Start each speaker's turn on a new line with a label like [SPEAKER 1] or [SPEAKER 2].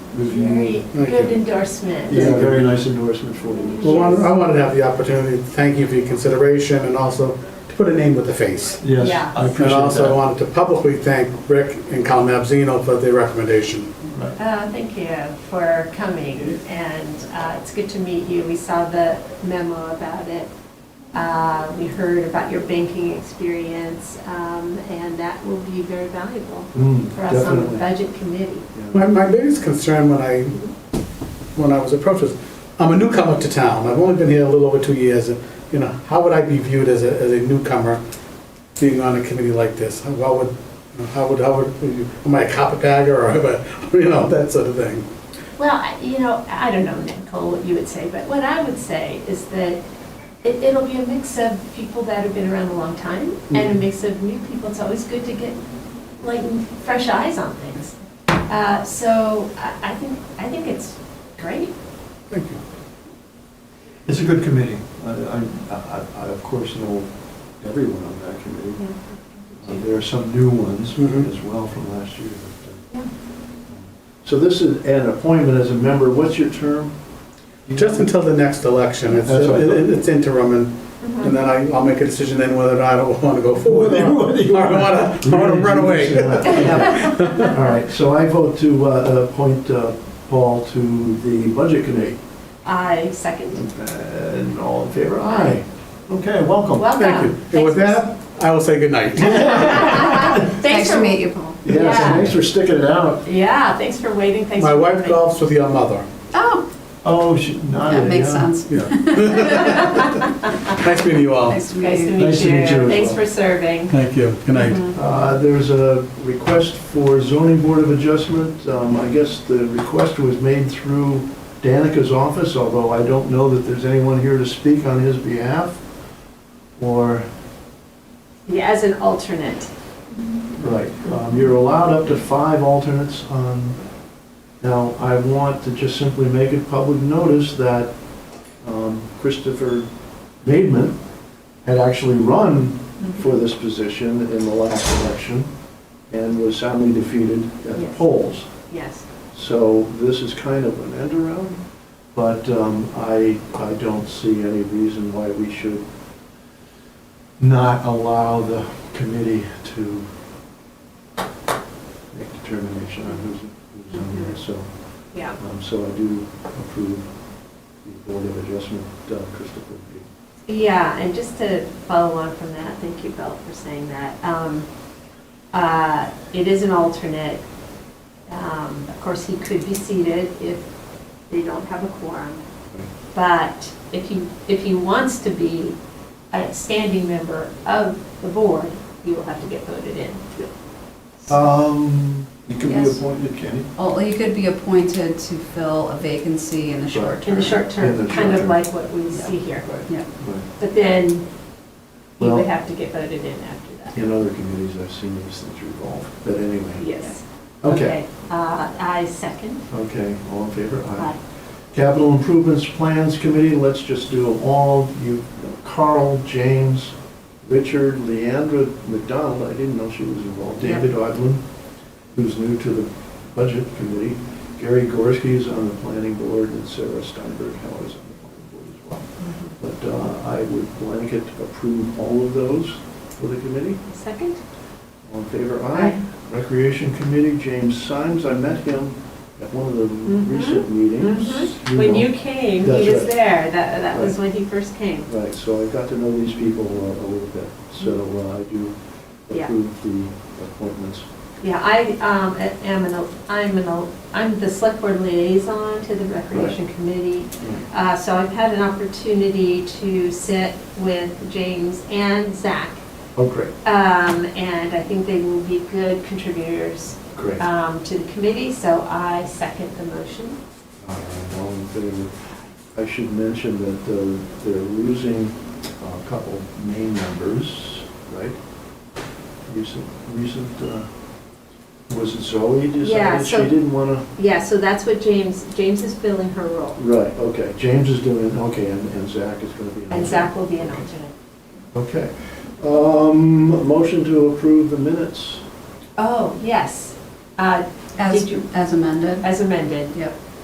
[SPEAKER 1] review.
[SPEAKER 2] Very
[SPEAKER 3] Thank
[SPEAKER 2] good
[SPEAKER 3] you.
[SPEAKER 2] endorsement.
[SPEAKER 1] Yeah, very nice endorsement for you.
[SPEAKER 3] Well, I- I wanted to have the opportunity to thank you for your consideration and also to put a name with a face.
[SPEAKER 1] Yes,
[SPEAKER 2] Yeah.
[SPEAKER 1] I appreciate
[SPEAKER 3] And also I
[SPEAKER 1] that.
[SPEAKER 3] wanted to publicly thank Rick and Cal Mabzino for their recommendation.
[SPEAKER 2] Uh, Thank you for coming, and uh, it's good to meet you. We saw the memo about it. Uh, We heard about your banking experience, um, and that will be very valuable
[SPEAKER 1] Mm,
[SPEAKER 2] for us on the
[SPEAKER 1] definitely.
[SPEAKER 2] budget committee.
[SPEAKER 3] My, my biggest concern when I, when I was approached was, I'm a newcomer to town. I've only been here a little over two years. and You know, how would I be viewed as a, as a newcomer being on a committee like this? How how would, you know, how would, how would, am I a carpetbagger or, am I- you know, that sort of thing?
[SPEAKER 2] Well, I- you know, I don't know, Nicole, what you would say, but what I would say is that it- it'll be a mix of people that have been around a long time and a
[SPEAKER 4] Mm-hmm.
[SPEAKER 2] mix of new people. It's always good to get like fresh eyes on things. Uh, So I I think, I think it's great.
[SPEAKER 3] Thank you.
[SPEAKER 1] It's a good committee. I, I- I, I, of course, know everyone on that
[SPEAKER 4] Mm-hmm.
[SPEAKER 1] committee. Uh, There are some new ones
[SPEAKER 3] Mhm.
[SPEAKER 1] as well from last year. but,
[SPEAKER 2] Yeah.
[SPEAKER 1] uh, So this is an appointment as a member. What's your term?
[SPEAKER 3] Just until the next election, it's,
[SPEAKER 1] That's right.
[SPEAKER 3] it- it's interim, and, and then I, I'll make a decision then whether or not I want to go forward. or
[SPEAKER 1] Whether you
[SPEAKER 3] I want to, I want to run away.
[SPEAKER 1] Yeah. All right, so I vote to uh, appoint uh, Paul to the Budget Committee.
[SPEAKER 2] Mm-hmm. I second.
[SPEAKER 1] And all in favor? Aye. Okay, welcome.
[SPEAKER 2] Welcome.
[SPEAKER 3] Oh, Thank you. And with that, I will say goodnight.
[SPEAKER 2] Thanks
[SPEAKER 4] Nice
[SPEAKER 2] for
[SPEAKER 4] to meet
[SPEAKER 2] meeting.
[SPEAKER 4] you, Paul.
[SPEAKER 1] Yes,
[SPEAKER 2] Yeah.
[SPEAKER 1] thanks for sticking it out.
[SPEAKER 2] Yeah, thanks for waiting, thanks
[SPEAKER 3] My
[SPEAKER 2] for
[SPEAKER 3] wife
[SPEAKER 2] coming.
[SPEAKER 3] golfs with your mother.
[SPEAKER 4] Oh,
[SPEAKER 1] Oh, she, Nadia,
[SPEAKER 4] that makes
[SPEAKER 1] yeah.
[SPEAKER 4] sense.
[SPEAKER 3] Yeah. Nice meeting
[SPEAKER 2] Oh.
[SPEAKER 3] you all.
[SPEAKER 4] Nice to meet
[SPEAKER 2] Nice to
[SPEAKER 4] you.
[SPEAKER 1] Nice
[SPEAKER 2] meet
[SPEAKER 1] to
[SPEAKER 2] you.
[SPEAKER 1] meet you as
[SPEAKER 2] Thanks
[SPEAKER 1] well.
[SPEAKER 2] for serving.
[SPEAKER 3] Thank you. Good night.
[SPEAKER 1] Uh, There's a request for zoning board of adjustment. Um, I guess the request was made through Danica's office, although I don't know that there's anyone here to speak on his behalf. Or,
[SPEAKER 2] Yeah, As an alternate.
[SPEAKER 1] right, um, you're allowed up to five alternates on, now, I want to just simply make it public notice that um, Christopher Bateman had actually run
[SPEAKER 4] Mm-hmm.
[SPEAKER 1] for this position in the last election and was soundly defeated at the
[SPEAKER 2] Yes.
[SPEAKER 1] polls.
[SPEAKER 2] Yes.
[SPEAKER 1] So this is kind of an end around, but um, I, I don't see any reason why we should not allow the committee to make determination on who's, who's on there, so,
[SPEAKER 2] Yeah.
[SPEAKER 1] um, so I do approve the Board of Adjustment, uh, Christopher. B.
[SPEAKER 2] Yeah, and just to follow on from that, thank you, Bill, for saying that. Um, uh, It is an alternate. Um, Of course, he could be seated if they don't have a quorum. But if he, if he wants to be a standing member of the board, he will have to get voted in.
[SPEAKER 1] Um, you can be
[SPEAKER 4] Yes.
[SPEAKER 1] appointed, can you?
[SPEAKER 4] Well, you could be appointed to fill a vacancy in the short
[SPEAKER 2] In
[SPEAKER 4] term.
[SPEAKER 2] the short
[SPEAKER 1] In
[SPEAKER 2] term,
[SPEAKER 1] the
[SPEAKER 2] kind
[SPEAKER 1] short
[SPEAKER 2] of
[SPEAKER 1] term.
[SPEAKER 2] like what we see here.
[SPEAKER 4] Yeah.
[SPEAKER 2] But then he
[SPEAKER 1] Well-
[SPEAKER 2] would have to get voted in after that.
[SPEAKER 1] In other committees, I've seen these things revolve, but anyway.
[SPEAKER 2] Yes.
[SPEAKER 1] Okay,
[SPEAKER 2] Uh, I second.
[SPEAKER 1] okay, all in favor?
[SPEAKER 2] Aye.
[SPEAKER 1] Capital Improvements Plans Committee, let's just do them all. You, Carl, James, Richard, Leandra McDonald, I didn't know she was involved.
[SPEAKER 4] Yeah.
[SPEAKER 1] David Odlin, who's new to the Budget Committee. Gary Gorski's on the Planning Board, and Sarah Steinberg Heller's on the Planning Board as well. But uh, I would blanket approve all of those for the committee.
[SPEAKER 2] Second?
[SPEAKER 1] All in favor, aye.
[SPEAKER 2] Aye.
[SPEAKER 1] Recreation Committee, James Symes, I met him at one of the
[SPEAKER 2] Mhm.
[SPEAKER 1] recent meetings.
[SPEAKER 2] Mhm. When
[SPEAKER 1] know.
[SPEAKER 2] you came,
[SPEAKER 1] That's
[SPEAKER 2] he was
[SPEAKER 1] right.
[SPEAKER 2] there. That, that was when he first came.
[SPEAKER 1] Right, so I got to know these people uh, a little bit, so uh, I do
[SPEAKER 2] Mm-hmm. Yeah.
[SPEAKER 1] approve the appointments.
[SPEAKER 2] Yeah, I, um, am an, I'm an, I'm the select board liaison to the recreation committee. Uh, so I've had an opportunity to sit with James and Zach.
[SPEAKER 1] Oh, great,
[SPEAKER 2] Um, and I think they will be good contributors,
[SPEAKER 1] great. All
[SPEAKER 2] um, to the committee, so I second the motion.
[SPEAKER 1] right, Uh, all in favor. I should mention that uh, they're losing a couple main members, right? Recent, recent, uh, was it Zoe
[SPEAKER 2] Yeah,
[SPEAKER 1] decided she
[SPEAKER 2] so-
[SPEAKER 1] didn't want to?
[SPEAKER 2] Yeah, so that's what James, James is filling her role,
[SPEAKER 1] Right, okay, James is doing, okay, and and Zach is going to be. an
[SPEAKER 2] and
[SPEAKER 1] alternate.
[SPEAKER 2] Zach will be an alternate.
[SPEAKER 1] Okay. Um, Motion to approve the minutes.
[SPEAKER 2] Oh, yes. Uh,
[SPEAKER 4] Did
[SPEAKER 2] As,
[SPEAKER 4] you-
[SPEAKER 2] as amended?
[SPEAKER 4] as amended.
[SPEAKER 2] Yep.